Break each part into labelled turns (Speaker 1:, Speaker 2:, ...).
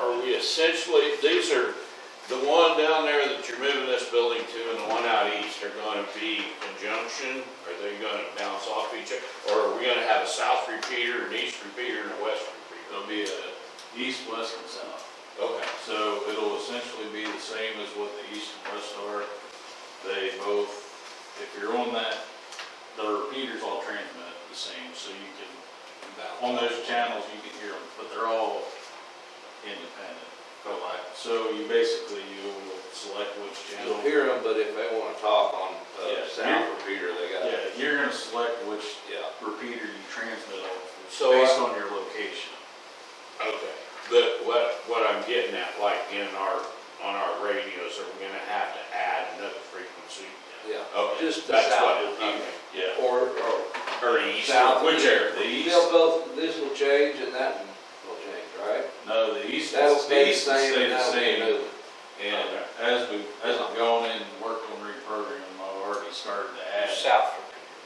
Speaker 1: are we essentially, these are, the one down there that you're moving this building to and the one out east are gonna be conjunction? Are they gonna bounce off each other? Or are we gonna have a south repeater, an east repeater, and a west repeater?
Speaker 2: It'll be a east, west, and south.
Speaker 1: Okay,
Speaker 2: So it'll essentially be the same as what the east and west are. They both, if you're on that, the repeaters all transmit the same, so you can, on those channels, you can hear them, but they're all independent.
Speaker 1: okay.
Speaker 2: So you basically, you will select which
Speaker 3: You'll
Speaker 2: channel.
Speaker 3: hear them, but if they wanna talk on, uh,
Speaker 2: Yeah.
Speaker 3: sound repeater, they got,
Speaker 2: Yeah, you're gonna select which
Speaker 3: yeah.
Speaker 2: repeater you transmit off,
Speaker 1: So I-
Speaker 2: based on your location.
Speaker 1: Okay, but what, what I'm getting at, like in our, on our radios, are we gonna have to add another frequency?
Speaker 3: Yeah.
Speaker 1: Okay,
Speaker 3: Just the
Speaker 1: that's
Speaker 3: south
Speaker 1: what- okay.
Speaker 3: repeater.
Speaker 2: Yeah.
Speaker 3: Or, or,
Speaker 1: Or east,
Speaker 3: South.
Speaker 1: whichever, the east.
Speaker 3: they'll both, this will change and that will change, right?
Speaker 2: No, the east,
Speaker 3: That'll
Speaker 2: will
Speaker 3: stay the
Speaker 2: stay
Speaker 3: same and
Speaker 2: the
Speaker 3: that'll be
Speaker 2: same.
Speaker 3: a new one.
Speaker 2: And as we, as I've gone in and worked on reprogramming, I've already started to add.
Speaker 3: South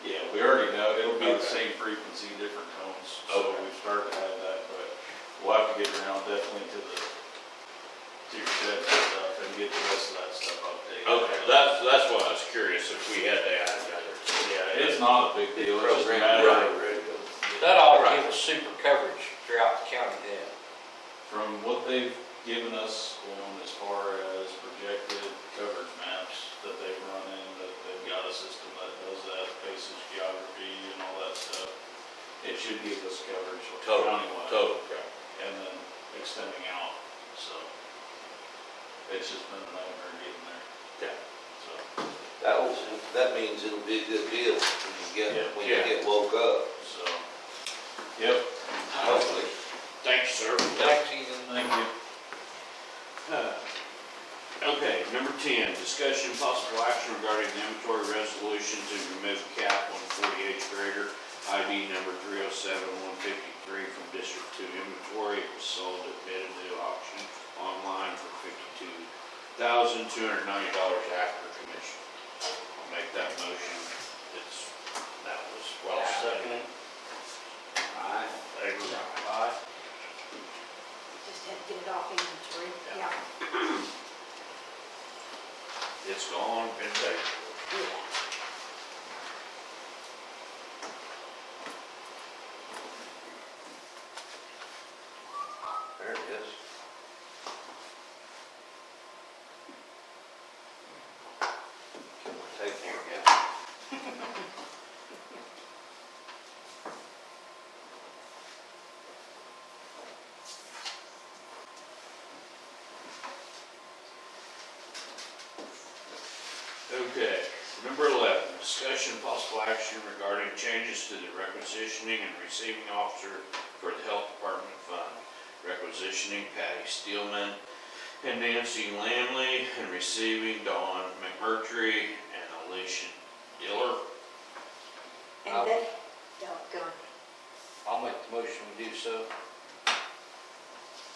Speaker 2: Yeah, we already know, it'll be the
Speaker 1: Okay.
Speaker 2: same frequency, different tones, so
Speaker 1: Okay.
Speaker 2: we've started to have that, but we'll have to get around definitely to the, to your sheds and stuff and get the rest of that stuff updated.
Speaker 1: Okay, that's, that's why I was curious if we had to add another.
Speaker 2: Yeah, it's not a big deal, it's just a
Speaker 3: program,
Speaker 2: matter of,
Speaker 3: right, radio.
Speaker 4: That ought to give us super coverage throughout the county then.
Speaker 2: from what they've given us on as far as projected coverage maps that they've run in, that they've got a system that does that, basis geography and all that stuff. It should give us coverage
Speaker 1: Total,
Speaker 2: countywide
Speaker 1: total,
Speaker 2: and then extending out, so. It's just been a nightmare getting there,
Speaker 1: okay.
Speaker 2: so.
Speaker 3: That'll, that means it'll be a good deal when you
Speaker 2: Yeah.
Speaker 3: get, when you
Speaker 1: Yeah.
Speaker 3: get woke up,
Speaker 2: So, yep,
Speaker 3: hopefully.
Speaker 1: Thanks, sir.
Speaker 4: Thanks, Ethan.
Speaker 2: thank you.
Speaker 1: Okay, number ten, discussion and possible action regarding the inventory resolution to remove cap one forty-eight grader ID number three oh seven one fifty-three from District Two inventory. It was sold at bid and new auction online for fifty-two thousand two hundred ninety dollars after commission. I'll make that motion. It's, that was well seconded. Aye. Favor? Aye.
Speaker 5: Just had to get it off inventory,
Speaker 1: Yeah.
Speaker 5: yeah,
Speaker 1: It's gone, been taken.
Speaker 5: yeah.
Speaker 3: There it is. Can we take more?
Speaker 1: Okay, number eleven, discussion and possible action regarding changes to the requisitioning and receiving officer for the health department fund. Requisitioning Patty Steelman and Nancy Lamley and receiving Dawn McMurtry and Alicia Diller.
Speaker 4: I'll-
Speaker 5: And then, doggone,
Speaker 4: I'll make the motion to do so.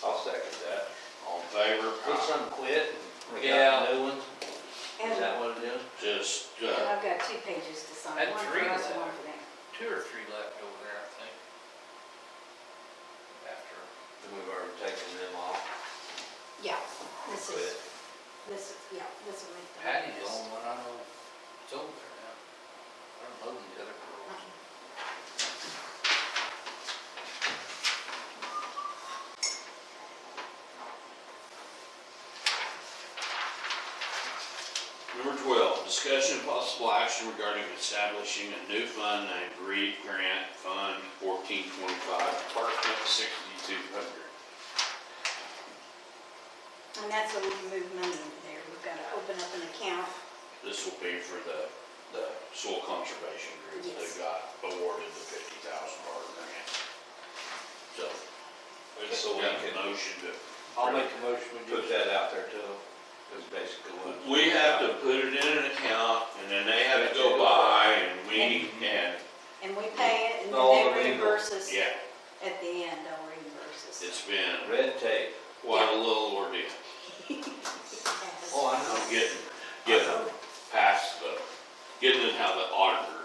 Speaker 3: I'll second that. Um,
Speaker 1: All in favor?
Speaker 4: Did some quit?
Speaker 3: We got
Speaker 4: Yeah. New ones? Is
Speaker 5: and
Speaker 4: that what it is?
Speaker 1: Just,
Speaker 5: and
Speaker 1: uh,
Speaker 5: I've got two pages to sign,
Speaker 4: And
Speaker 5: one for
Speaker 4: three
Speaker 5: us
Speaker 4: left.
Speaker 5: and one for them.
Speaker 4: Two or three left over there, I think. After.
Speaker 3: Then we've already taken them off.
Speaker 5: Yeah, this
Speaker 3: Quit.
Speaker 5: is, this is, yeah, this will make the.
Speaker 4: Patty's the only one I know that's over there now. I don't know the other girls.
Speaker 1: number twelve, discussion and possible action regarding establishing a new fund named Reed Grant Fund fourteen twenty-five, Department sixty-two hundred.
Speaker 5: And that's where we can move money into there, we've got to open up an account,
Speaker 1: This will be for the, the soil conservation group
Speaker 5: Yes.
Speaker 1: that got awarded the fifty thousand dollar grant. So, it's
Speaker 3: So we
Speaker 1: a
Speaker 3: can-
Speaker 1: motion to.
Speaker 4: I'll make the motion we do
Speaker 3: Put
Speaker 4: so.
Speaker 3: that out there too, is basically what.
Speaker 1: We have to put it in an account and then they have to go by and we, and,
Speaker 5: and we pay it, and
Speaker 3: All
Speaker 5: then
Speaker 3: the
Speaker 5: they
Speaker 3: legal.
Speaker 5: reimburse us
Speaker 1: yeah,
Speaker 5: at the end, they'll reimburse us.
Speaker 1: it's been
Speaker 3: Red tape.
Speaker 1: quite a little ordeal.
Speaker 5: Yes.
Speaker 3: Oh, I know.
Speaker 1: I'm getting, getting past the, getting it how the auditor